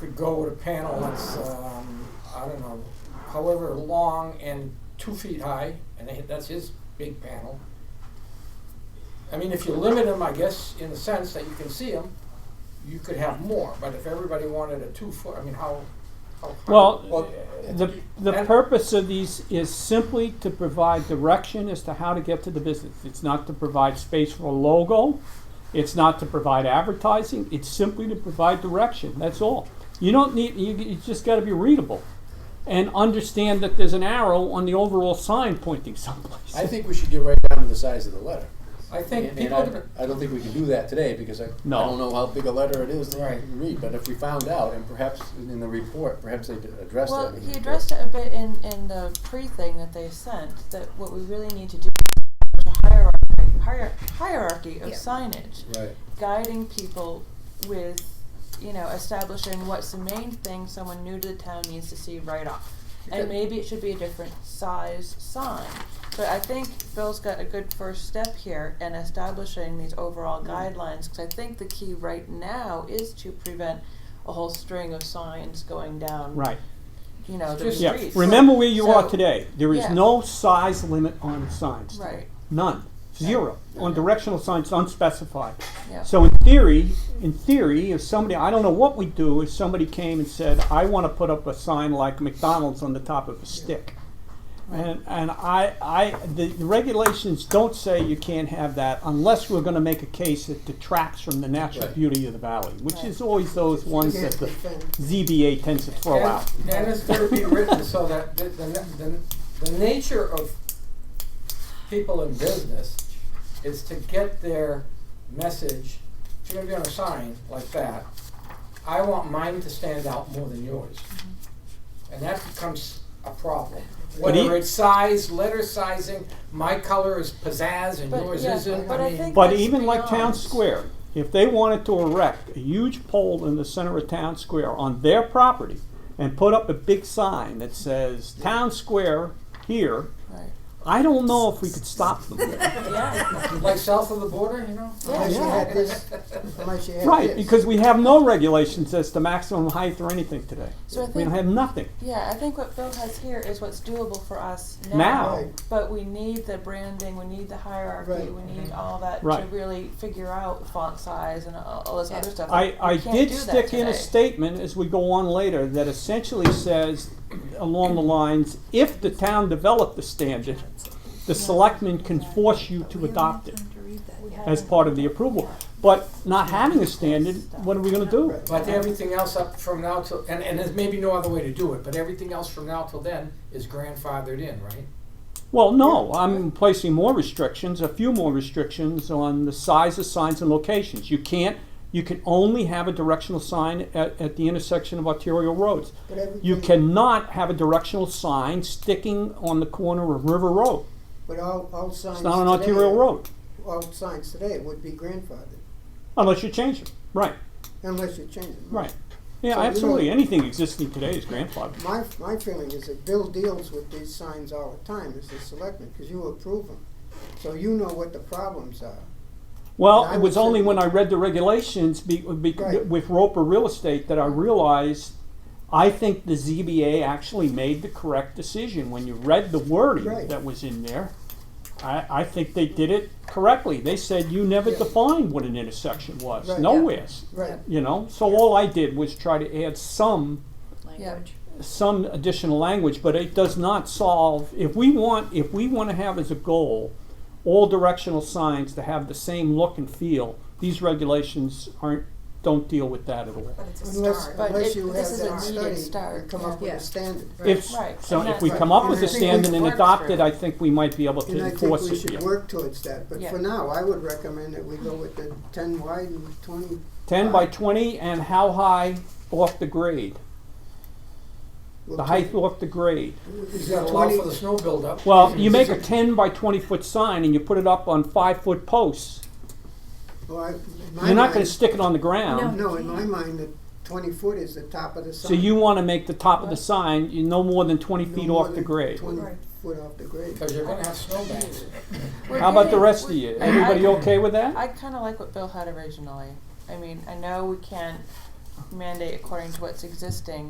could go with a panel that's, um, I don't know, however long and two feet high, and they- that's his big panel. I mean, if you limit them, I guess, in the sense that you can see them, you could have more, but if everybody wanted a two foot, I mean, how, how? high- Well, the, the and- purpose of these is simply to provide direction as to how to get to the business. It's not to provide space for a logo. It's not to provide advertising. It's simply to provide direction. That's all. You don't need, you, you just gotta be readable and understand that there's an arrow on the overall sign pointing someplace. I think we should get right down to the size of the letter. I think And and people, I, I don't think we can do that today because I, I No. don't know how big a letter it is that Right. you can read, but if we found out and perhaps in the report, perhaps they addressed that. Well, in the he report. addressed it a bit in, in the pre thing that they sent, that what we really need to do is a hierarchy, hier- hierarchy of Yeah. signage, Right, guiding people with, you know, establishing what's the main thing someone new to the town needs to see right off. Okay. And maybe it should be a different size sign. But I think Bill's got a good first step here in establishing these overall guidelines, because I think the key right now is to prevent a whole string of signs going down Right, you know, the Just- yeah. streets. Remember where you are So- today. There is yeah. no size limit on signs. today. Right, None. Zero. On directional signs unspecified. yeah. So in theory, in theory, if somebody, I don't know what we do, if somebody came and said, I want to put up a sign like McDonald's on the top of a stick. And, and I, I, the the regulations don't say you can't have that unless we're gonna make a case that detracts from the natural Right. beauty of the valley, which Right. is always those ones that the ZBA tends to throw and, out. and it's gonna be written so that the, the, the, the nature of people in business is to get their message, if you're gonna be on a sign like that, I want mine to stand out more than yours. And that becomes a problem. But e- Whether it's size, letter sizing, my color is pizzazz and But, yours yeah, isn't, but I I mean, think- But That's even like Town beyond. Square, if they wanted to erect a huge pole in the center of Town Square on their property and put up a big sign that says Town Square here, Right. I don't know if we could stop them. Yeah. like south of the border, you know? Unless you Yeah. had this, unless you had Right, this. because we have no regulations as to maximum height or anything today. So I We think, have nothing yeah, I think what Bill has here is what's doable for us now. now. Right. But we need the branding, we need the hierarchy, Right. we need all that to Right. really figure out font size and all all this other stuff. I, We I can't did do that stick in today. a statement as we go on later that essentially says along the lines, if the town developed the standard, the selectmen can force you to adopt it as part of the approval. But not having a standard, what are we gonna do? But everything else up from now till, and, and there's maybe no other way to do it, but everything else from now till then is grandfathered in, right? Well, no, I'm placing more restrictions, a few more restrictions on the size of signs and locations. You can't, you can only have a directional sign at, at the intersection of arterial roads. But everything- You cannot have a directional sign sticking on the corner of River Road. But all, all signs It's not an today- arterial road, All signs today would be grandfathered, unless you change it. Right, unless you change them. right. Yeah, So you absolutely. don't- Anything existing today is grandfathered. My, my feeling is that Bill deals with these signs all the time as a selectman, because you approve them. So you know what the problems are. Well, I it would was only say- when I read the regulations be, be, Right. with Roper Real Estate that I realized I think the ZBA actually made the correct decision. When you read the wording Right. that was in there, I, I think they did it correctly. They said you never Yeah. defined what an intersection was, Right. nowhere. Right. You know, so all I did was try to add some Yeah. some additional language, but it does not solve, if we want, if we want to have as a goal all directional signs to have the same look and feel, these regulations aren't, don't deal with that at all. But it's a Unless, start. But unless it- you this have is a that needed study start, and come up with yeah. a standard. If, Right, so and if we that's- come up with And a I think we standard and work adopt through it, it. I think we might be able to And I think enforce we it should here. work towards that, but Yeah. for now, I would recommend that we go with the ten wide and twenty. Ten by twenty and how high off the grade, we'll the take- height off the grade. He's got got to allow 20 for the snow buildup. Well, Mm-hmm. you make a ten by twenty foot sign and you put it up on five foot posts, Well, I- in my you're not gonna mind- stick it on the ground. No, in my mind, the twenty foot is the top of the sign. So you want to make the top of the sign you no more than 20 No feet more off the than grade. Twenty Right. foot off the grade. Because you're gonna have snowbanks. We're How about the getting- rest of you? I- Everybody I- okay with that? I kinda like what Bill had originally. I mean, I know we can't mandate according to what's existing